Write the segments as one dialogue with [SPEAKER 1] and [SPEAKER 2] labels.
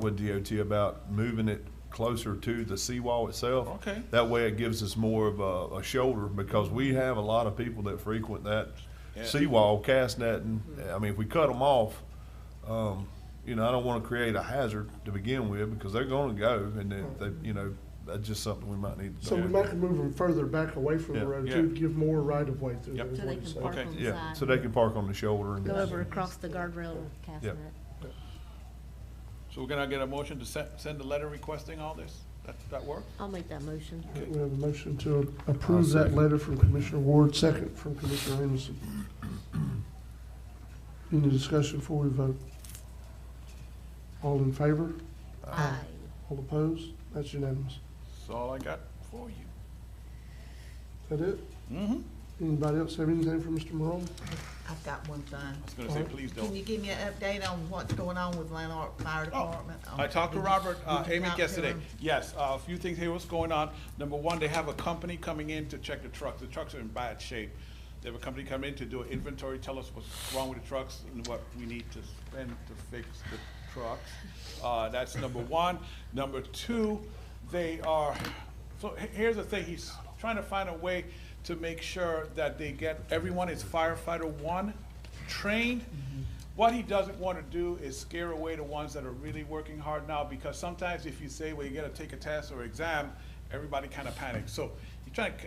[SPEAKER 1] with DOT about moving it closer to the seawall itself.
[SPEAKER 2] Okay.
[SPEAKER 1] That way it gives us more of a, a shoulder, because we have a lot of people that frequent that
[SPEAKER 2] Yeah.
[SPEAKER 1] seawall, cast netting. I mean, if we cut them off, um, you know, I don't wanna create a hazard to begin with, because they're gonna go, and then, they, you know, that's just something we might need to.
[SPEAKER 3] So we
[SPEAKER 1] do.
[SPEAKER 3] might have to move them further back away from
[SPEAKER 1] Yeah.
[SPEAKER 3] the road
[SPEAKER 2] Yeah.
[SPEAKER 3] too, to give more right of way through there.
[SPEAKER 2] Yep.
[SPEAKER 3] is
[SPEAKER 4] So
[SPEAKER 3] what
[SPEAKER 4] they
[SPEAKER 3] I'm
[SPEAKER 4] can
[SPEAKER 3] saying.
[SPEAKER 4] park
[SPEAKER 2] Okay.
[SPEAKER 4] on the
[SPEAKER 1] Yeah,
[SPEAKER 4] side.
[SPEAKER 1] so they can park on the shoulder and.
[SPEAKER 4] Go over across the guardrail cast
[SPEAKER 1] Yeah.
[SPEAKER 4] net.
[SPEAKER 2] So we're gonna get a motion to send, send a letter requesting all this? That, that work?
[SPEAKER 4] I'll make that motion.
[SPEAKER 3] We have a motion to approve that letter from Commissioner Ward, second from Commissioner Amison. Any discussion before we vote? All in favor?
[SPEAKER 4] Aye.
[SPEAKER 3] All opposed? That's unanimous.
[SPEAKER 2] That's all I got for you.
[SPEAKER 3] Is that it?
[SPEAKER 2] Mm-hmm.
[SPEAKER 3] Anybody else have anything for Mr. Morone?
[SPEAKER 5] I've got one thing.
[SPEAKER 2] I was gonna say, please
[SPEAKER 5] Can you
[SPEAKER 2] don't. Oh,
[SPEAKER 5] give me an update on what's going on with Lanark Fire Department?
[SPEAKER 2] I talked to
[SPEAKER 5] Did you-
[SPEAKER 2] Robert, uh,
[SPEAKER 5] did you
[SPEAKER 2] Amy
[SPEAKER 5] talk to
[SPEAKER 2] yesterday.
[SPEAKER 5] him?
[SPEAKER 2] Yes, uh, a few things here, what's going on? Number one, they have a company coming in to check the trucks. The trucks are in bad shape. They have a company come in to do an inventory, tell us what's wrong with the trucks and what we need to spend to fix the trucks. Uh, that's number one. Number two, they are, so he- here's the thing, he's trying to find a way to make sure that they get, everyone is firefighter one trained. What he doesn't want to do is scare away the ones that are really working hard now, because sometimes if you say, well, you gotta take a test or exam, everybody kind of panics. So he's trying to,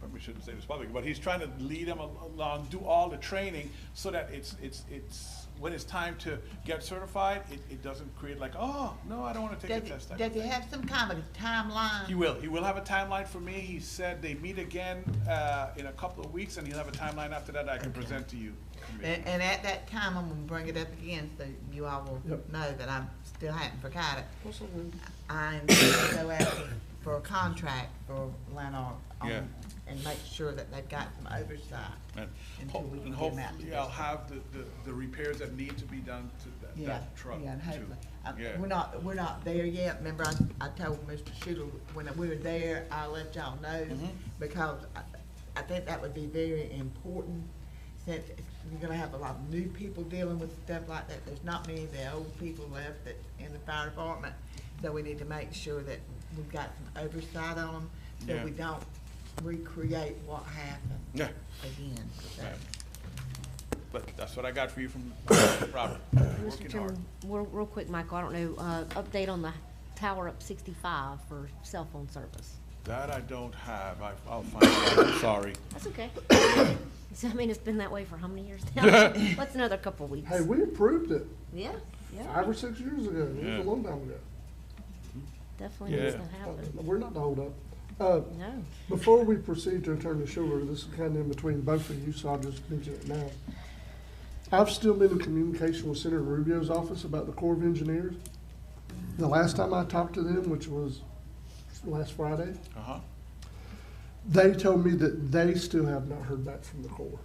[SPEAKER 2] probably shouldn't say this publicly, but he's trying to lead them al- along, do all the training, so that it's, it's, it's, when it's time to get certified, it, it doesn't create like, oh, no, I don't want to take a
[SPEAKER 5] Does
[SPEAKER 2] test.
[SPEAKER 5] he,
[SPEAKER 2] type
[SPEAKER 5] does
[SPEAKER 2] of
[SPEAKER 5] he
[SPEAKER 2] thing."
[SPEAKER 5] have some kind of timeline?
[SPEAKER 2] He will. He will have a timeline for me. He said they meet again uh, in a couple of weeks, and he'll have a timeline after that I can present to you.
[SPEAKER 5] And, and at that time, I'm gonna bring it up again, so you all will
[SPEAKER 3] Yep.
[SPEAKER 5] know that I still haven't forgot it. I'm gonna go out for a contract for Lanark. on-
[SPEAKER 2] Yeah.
[SPEAKER 5] And make sure that they've got some oversight.
[SPEAKER 2] And
[SPEAKER 5] Until
[SPEAKER 2] ho-
[SPEAKER 5] we
[SPEAKER 2] and
[SPEAKER 5] can get them out to
[SPEAKER 2] hopefully
[SPEAKER 5] this
[SPEAKER 2] I'll have the, the, the repairs that need to be done to that,
[SPEAKER 5] Yeah,
[SPEAKER 2] that truck too.
[SPEAKER 5] yeah, and hopefully, uh,
[SPEAKER 2] Yeah.
[SPEAKER 5] we're not, we're not there yet, remember I, I told Mr. Schuler, when we were there, I let y'all know,
[SPEAKER 2] Mm-hmm.
[SPEAKER 5] because I, I think that would be very important, since you're gonna have a lot of new people dealing with stuff like that, there's not many of the old people left that, in the fire department, so we need to make sure that we've got some oversight on them, so
[SPEAKER 2] Yeah.
[SPEAKER 5] we don't recreate what happened
[SPEAKER 2] Yeah.
[SPEAKER 5] again, so.
[SPEAKER 2] Right. But that's what I got for you from Robert. Working
[SPEAKER 4] Mr.
[SPEAKER 2] hard.
[SPEAKER 4] Chairman, real, real quick, Mike, I don't know, uh, update on the tower up sixty-five for cell phone service.
[SPEAKER 2] That I don't have. I, I'll find out. I'm sorry.
[SPEAKER 4] That's okay. So, I mean, it's been that way for how many years now? What's another couple of weeks?
[SPEAKER 3] Hey, we approved it
[SPEAKER 4] Yeah, yeah,
[SPEAKER 3] five or six years ago. It was
[SPEAKER 2] Yeah.
[SPEAKER 3] a long time ago.
[SPEAKER 4] definitely needs
[SPEAKER 2] Yeah.
[SPEAKER 4] to happen.
[SPEAKER 3] We're not the holdup. Uh,
[SPEAKER 4] No,
[SPEAKER 3] Before we proceed to Attorney Schuler, this is kind of in between both of you, so I'll just mention it now. I've still been in communication with Senator Rubio's office about the Corps of Engineers. The last time I talked to them, which was last Friday,
[SPEAKER 2] Uh-huh.
[SPEAKER 3] they told me that they still have not heard back from the Corps.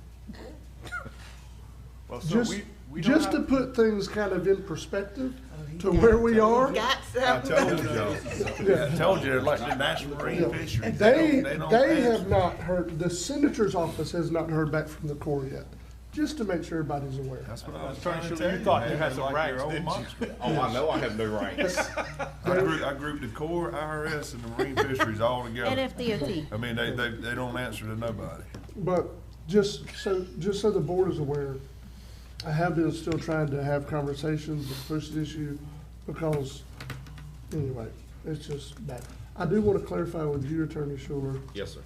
[SPEAKER 2] Well, so
[SPEAKER 3] Just,
[SPEAKER 2] we, we don't
[SPEAKER 3] just to
[SPEAKER 2] have-
[SPEAKER 3] put things kind of in perspective
[SPEAKER 5] Oh, he
[SPEAKER 3] to
[SPEAKER 5] got-
[SPEAKER 3] where we
[SPEAKER 5] he
[SPEAKER 3] are.
[SPEAKER 5] Got
[SPEAKER 1] I
[SPEAKER 5] something.
[SPEAKER 1] told you, I told you, like the National Marine Fishery.
[SPEAKER 3] They,
[SPEAKER 1] don't-
[SPEAKER 3] they have not heard, the Senator's office has not heard back from the Corps yet, just to make sure everybody's aware.
[SPEAKER 1] That's what I was
[SPEAKER 2] Attorney
[SPEAKER 1] trying to
[SPEAKER 2] Schuler,
[SPEAKER 1] tell
[SPEAKER 2] you
[SPEAKER 1] you,
[SPEAKER 2] thought you
[SPEAKER 1] man,
[SPEAKER 2] had
[SPEAKER 1] they
[SPEAKER 2] some
[SPEAKER 1] like
[SPEAKER 2] rights,
[SPEAKER 1] your old
[SPEAKER 2] didn't you?
[SPEAKER 1] monster.
[SPEAKER 6] Oh, I know I have no ranks.
[SPEAKER 1] I grouped, I grouped the Corps, IRS, and the Marine Fisheries all together.
[SPEAKER 4] NFDOT.
[SPEAKER 1] I mean, they, they, they don't answer to nobody.
[SPEAKER 3] But just so, just so the board is aware, I have been still trying to have conversations and push the issue because, anyway, it's just bad. I do want to clarify with you, Attorney Schuler,
[SPEAKER 6] Yes, sir.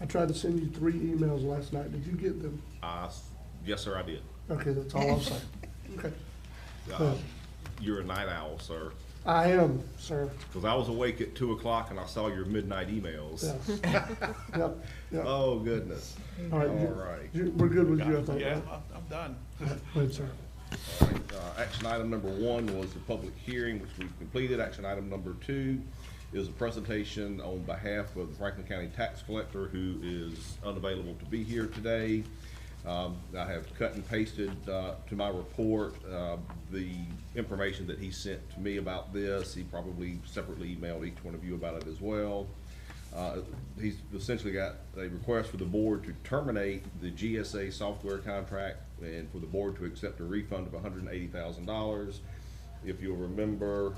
[SPEAKER 3] I tried to send you three emails last night. Did you get them?
[SPEAKER 6] I s yes, sir, I did.
[SPEAKER 3] Okay, that's all I'm saying. Okay.
[SPEAKER 6] Uh, You're a night owl, sir,
[SPEAKER 3] I am, sir.
[SPEAKER 6] because I was awake at two o'clock and I saw your midnight emails.
[SPEAKER 3] Yes. Yep, yep. All
[SPEAKER 6] Oh, goodness.
[SPEAKER 3] right.
[SPEAKER 6] All
[SPEAKER 3] you-
[SPEAKER 6] right.
[SPEAKER 3] you- We're good with you, I think.
[SPEAKER 2] Yeah,
[SPEAKER 3] right?
[SPEAKER 2] I'm, I'm done.
[SPEAKER 3] Good, sir.
[SPEAKER 6] All right, uh, Action item number one was the public hearing, which we've completed. Action item number two is a presentation on behalf of the Franklin County Tax Collector, who is unavailable to be here today. Um, I have cut and pasted uh, to my report uh, the information that he sent to me about this. He probably separately emailed each one of you about it as well. Uh, He's essentially got a request for the board to terminate the GSA software contract and for the board to accept a refund of hundred and eighty thousand dollars. If you'll remember,